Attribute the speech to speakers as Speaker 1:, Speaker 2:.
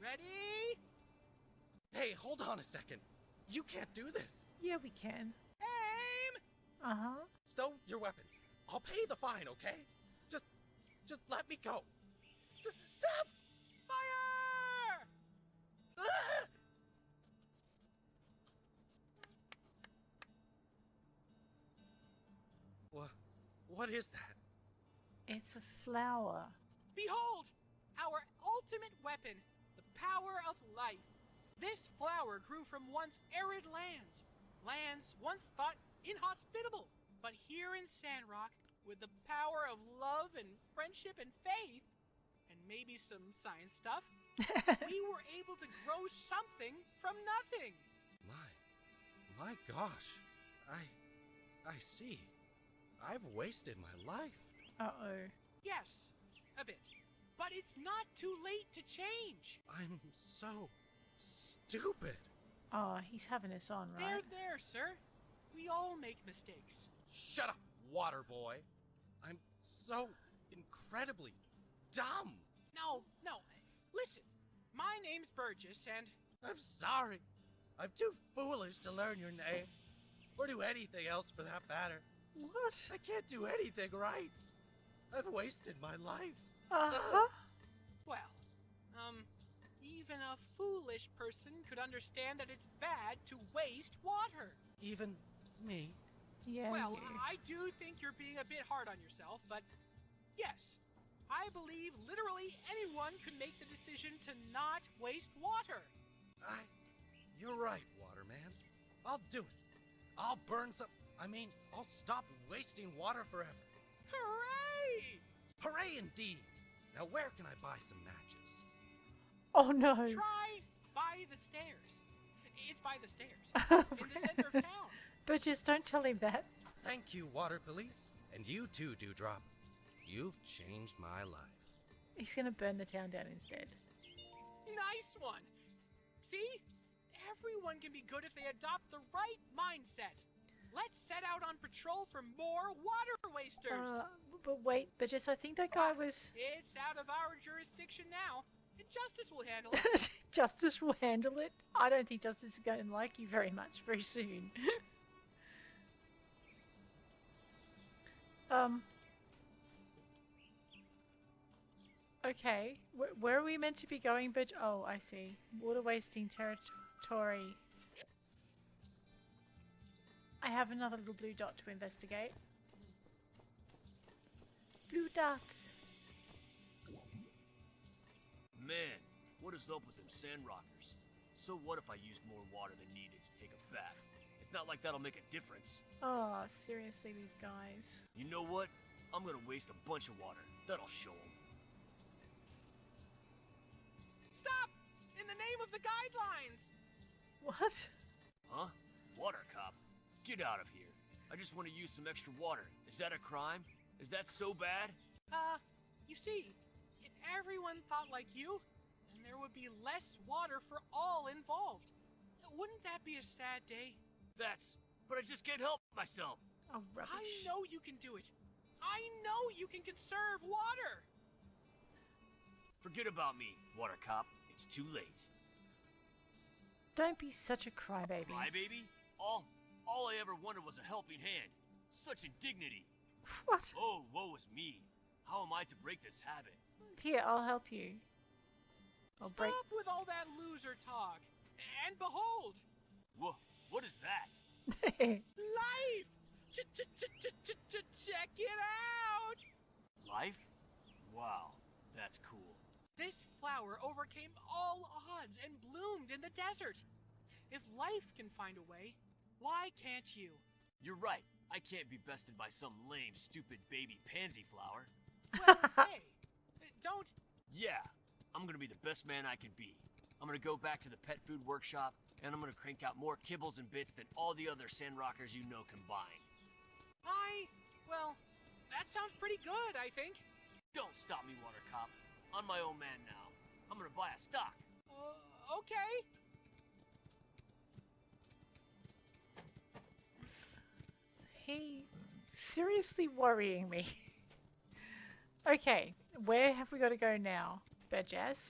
Speaker 1: Ready? Hey, hold on a second. You can't do this.
Speaker 2: Yeah, we can.
Speaker 1: Aim!
Speaker 2: Uh
Speaker 3: Uh-huh.
Speaker 2: huh.
Speaker 1: Stow your weapons. I'll pay the fine, okay? Just, just let me go. St- stop! Fire! Ah! What, what is that?
Speaker 2: It's a flower.
Speaker 3: Behold, our ultimate weapon, the power of life. This flower grew from once arid lands, lands once thought inhospitable. But here in Sandrock, with the power of love and friendship and faith, and maybe some science stuff, we were able to grow something from nothing.
Speaker 1: My, my gosh. I, I see. I've wasted my life.
Speaker 2: Uh oh.
Speaker 3: Yes, a bit. But it's not too late to change.
Speaker 1: I'm so stupid.
Speaker 2: Oh, he's having us on,
Speaker 3: There,
Speaker 2: right?
Speaker 3: there, sir. We all make mistakes.
Speaker 1: Shut up, water boy. I'm so incredibly dumb.
Speaker 3: No, no. Listen, my name's Burgess, and
Speaker 1: I'm sorry. I'm too foolish to learn your name or do anything else for that matter.
Speaker 2: What?
Speaker 1: I can't do anything right. I've wasted my life.
Speaker 2: Uh huh.
Speaker 3: well, um, even a foolish person could understand that it's bad to waste water.
Speaker 1: Even me.
Speaker 2: Yeah.
Speaker 3: well,
Speaker 2: you.
Speaker 3: I do think you're being a bit hard on yourself, but yes, I believe literally anyone could make the decision to not waste water.
Speaker 1: I. You're right, Waterman. I'll do it. I'll burn some. I mean, I'll stop wasting water forever.
Speaker 3: Hooray!
Speaker 1: Hooray indeed! Now, where can I buy some matches?
Speaker 2: Oh no.
Speaker 3: Try by the stairs. It's by the stairs. in the
Speaker 2: but
Speaker 3: center of town.
Speaker 2: just don't tell him that.
Speaker 1: Thank you, Water Police. And you too, Dewdrop. You've changed my life.
Speaker 2: He's gonna burn the town down instead.
Speaker 3: Nice one. See? Everyone can be good if they adopt the right mindset. Let's set out on patrol for more water wasters.
Speaker 2: Uh, but wait, but just I think that guy was.
Speaker 3: It's out of our jurisdiction now. Justice will handle it.
Speaker 2: Justice will handle it. I don't think Justice is going to like you very much very soon. um. Okay, where, where are we meant to be going, But Oh, I see. Water wasting territory. I have another little blue dot to investigate. Blue dots.
Speaker 4: Man, what is up with them sand rockers? So what if I used more water than needed to take a bath? It's not like that'll make a difference.
Speaker 2: Oh, seriously, these guys.
Speaker 4: You know what? I'm gonna waste a bunch of water. That'll show them.
Speaker 3: Stop! In the name of the guidelines!
Speaker 2: What?
Speaker 4: Huh? Water cop? Get out of here. I just want to use some extra water. Is that a crime? Is that so bad?
Speaker 3: Uh, you see, if everyone thought like you, then there would be less water for all involved. Wouldn't that be a sad day?
Speaker 4: That's. But I just can't help myself.
Speaker 2: Oh, rubbish.
Speaker 3: I know you can do it. I know you can conserve water.
Speaker 4: Forget about me, water cop. It's too late.
Speaker 2: Don't be such a crybaby.
Speaker 4: Crybaby? All. All I ever wanted was a helping hand. Such indignity.
Speaker 2: What?
Speaker 4: Oh, woe is me. How am I to break this habit?
Speaker 2: Here, I'll help you. I'll
Speaker 3: Stop
Speaker 2: break.
Speaker 3: with all that loser talk. And behold,
Speaker 4: Wha what is that?
Speaker 3: life! Ch- ch- ch- ch- ch- ch- Check it out!
Speaker 4: Life? Wow, that's cool.
Speaker 3: This flower overcame all odds and bloomed in the desert. If life can find a way, why can't you?
Speaker 4: You're right. I can't be bested by some lame, stupid baby pansy flower.
Speaker 3: Well, hey, don't.
Speaker 4: Yeah, I'm gonna be the best man I can be. I'm gonna go back to the pet food workshop, and I'm gonna crank out more kibbles and bits than all the other sand rockers you know combined.
Speaker 3: I. Well, that sounds pretty good, I think.
Speaker 4: Don't stop me, Water Cop. I'm my own man now. I'm gonna buy a stock.
Speaker 3: Uh, okay.
Speaker 2: He's seriously worrying me. okay, where have we got to go now, Burgess?